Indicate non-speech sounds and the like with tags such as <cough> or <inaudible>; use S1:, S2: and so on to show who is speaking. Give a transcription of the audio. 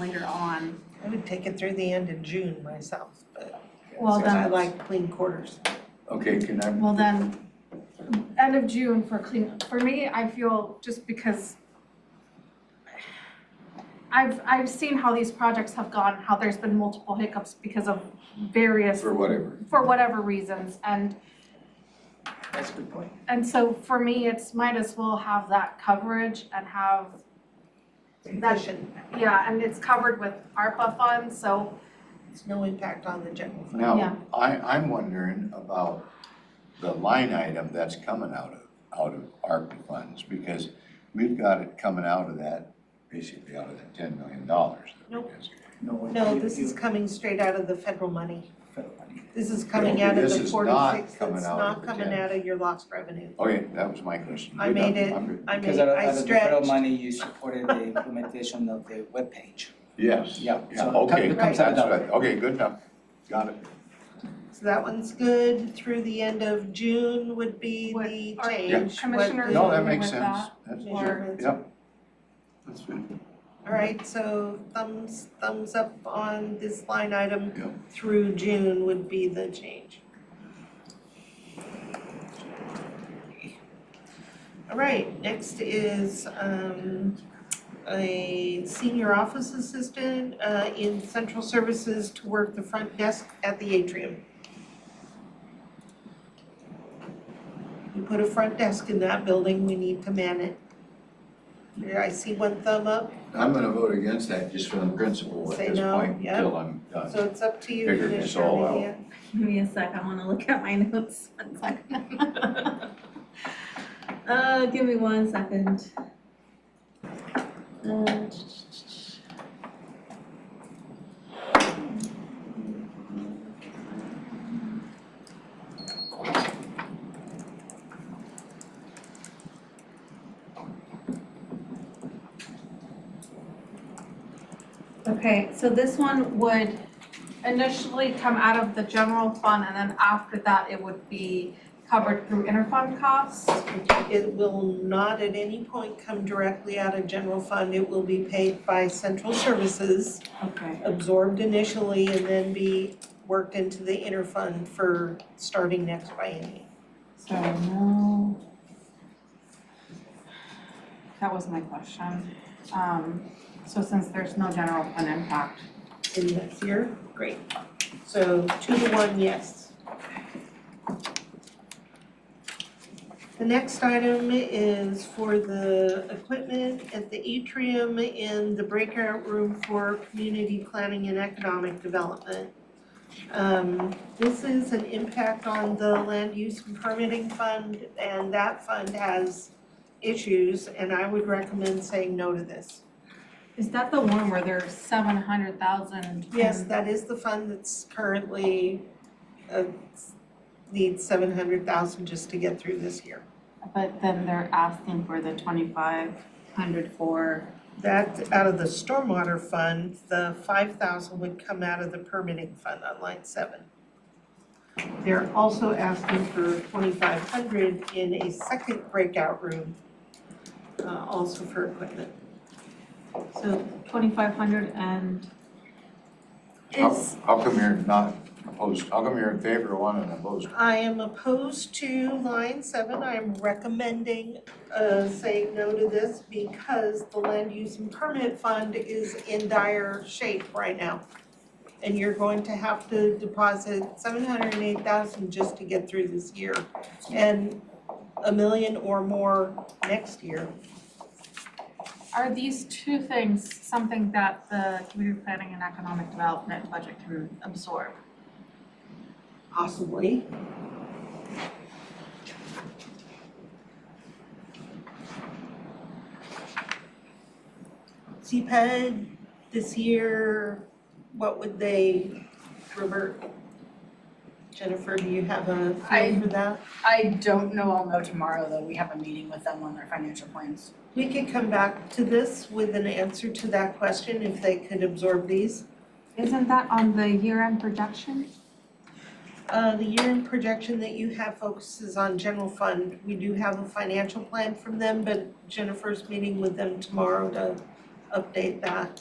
S1: later on.
S2: I would take it through the end of June myself, but
S1: Well,
S2: because I
S1: then,
S2: like clean quarters.
S3: Okay, can I,
S1: well then, end of June for clean, for me, I feel just because I've, I've seen how these projects have gone, how there's been multiple hiccups because of various,
S3: for whatever,
S1: for whatever reasons. And,
S2: That's a good point.
S1: and so for me, it's might as well have that coverage and have,
S2: Sufficient,
S1: yeah, and it's covered with ARPA funds, so,
S2: it's no impact on the general fund.
S1: Yeah.
S3: now, I, I'm wondering about the line item that's coming out of, out of ARPA funds, because we've got it coming out of that, basically out of that ten million dollars.
S2: Nope.
S4: No,
S2: No,
S4: you-
S2: this
S4: you-
S2: is coming straight out of the federal money.
S4: federal money.
S2: This is coming out of
S3: This
S2: the
S3: is not
S2: forty-six,
S3: coming
S2: that's
S3: out of
S2: not
S3: the
S2: coming
S3: general.
S2: out of your lost revenue.
S3: Okay, that was my question.
S2: I
S3: You're
S2: made
S3: done.
S2: it.
S3: I'm good.
S2: I mean,
S4: Because out of,
S2: I
S4: out of the federal
S2: stretched,
S4: money, you supported the implementation of the webpage.
S3: Yes.
S4: Yeah,
S3: Yeah,
S4: so it
S3: okay,
S4: com- it
S3: that's
S4: comes out of
S3: right, okay, good enough, got it.
S2: so that one's good, through the end of June would be
S1: What-
S2: the
S1: are-
S2: change.
S3: Yeah.
S2: what
S1: Commissioners-
S2: the-
S3: No,
S1: agree
S3: that makes
S1: with
S3: sense,
S1: that,
S3: that's,
S1: or-
S2: Measurements.
S3: yep. That's good.
S2: All right, so thumbs, thumbs up on this line item
S3: Yeah.
S2: through June would be the change. All right, next is um a senior office assistant uh in central services to work the front desk at the atrium. We put a front desk in that building, we need to man it. There, I see one thumb up.
S3: I'm gonna vote against that just from principle at
S2: Say
S3: this
S2: no,
S3: point,
S2: yeah.
S3: until I'm done.
S2: So it's up to you,
S3: Figure
S2: Commissioner
S3: this all out.
S2: Mejia.
S5: Give me a sec, I wanna look at my <laughs> notes, one second. <laughs> Uh, give me one second. Uh, Okay, so this one would
S1: initially come out of the general fund and then after that it would be covered through interfund costs.
S2: It will not at any point come directly out of general fund, it will be paid by central services,
S5: Okay,
S2: absorbed initially and then be worked into the inter fund for starting next biennium.
S5: so no,
S1: That was my question. Um, so since there's no general fund impact,
S2: in this year, great. So two to one, yes. The next item is for the equipment at the atrium in the breakout room for community planning and economic development. Um, this is an impact on the land use and permitting fund, and that fund has issues, and I would recommend saying no to this.
S1: is that the one where there's seven hundred thousand?
S2: Yes, that is the fund that's currently, uh, needs seven hundred thousand just to get through this year.
S1: But then they're asking for the twenty-five hundred for,
S2: That, out of the stormwater fund, the five thousand would come out of the permitting fund on line seven. They're also asking for twenty-five hundred in a second breakout room, uh, also for equipment.
S1: so twenty-five hundred and
S3: How,
S1: is,
S3: how come you're not opposed, how come you're in favor of one and opposed?
S2: I am opposed to line seven, I'm recommending uh saying no to this because the land use and permit fund is in dire shape right now. And you're going to have to deposit seven hundred and eight thousand just to get through this year and a million or more next year.
S1: are these two things something that the community planning and economic development budget can absorb?
S2: Possibly. CPED E this year, what would they revert? Jennifer, do you have a
S6: I-
S2: feel for that?
S6: I don't know, I'll know tomorrow though, we have a meeting with them on their financial plans.
S2: We could come back to this with an answer to that question if they could absorb these.
S1: Isn't that on the year-end projection?
S2: Uh, the year-end projection that you have focuses on general fund. We do have a financial plan from them, but Jennifer's meeting with them tomorrow to update that.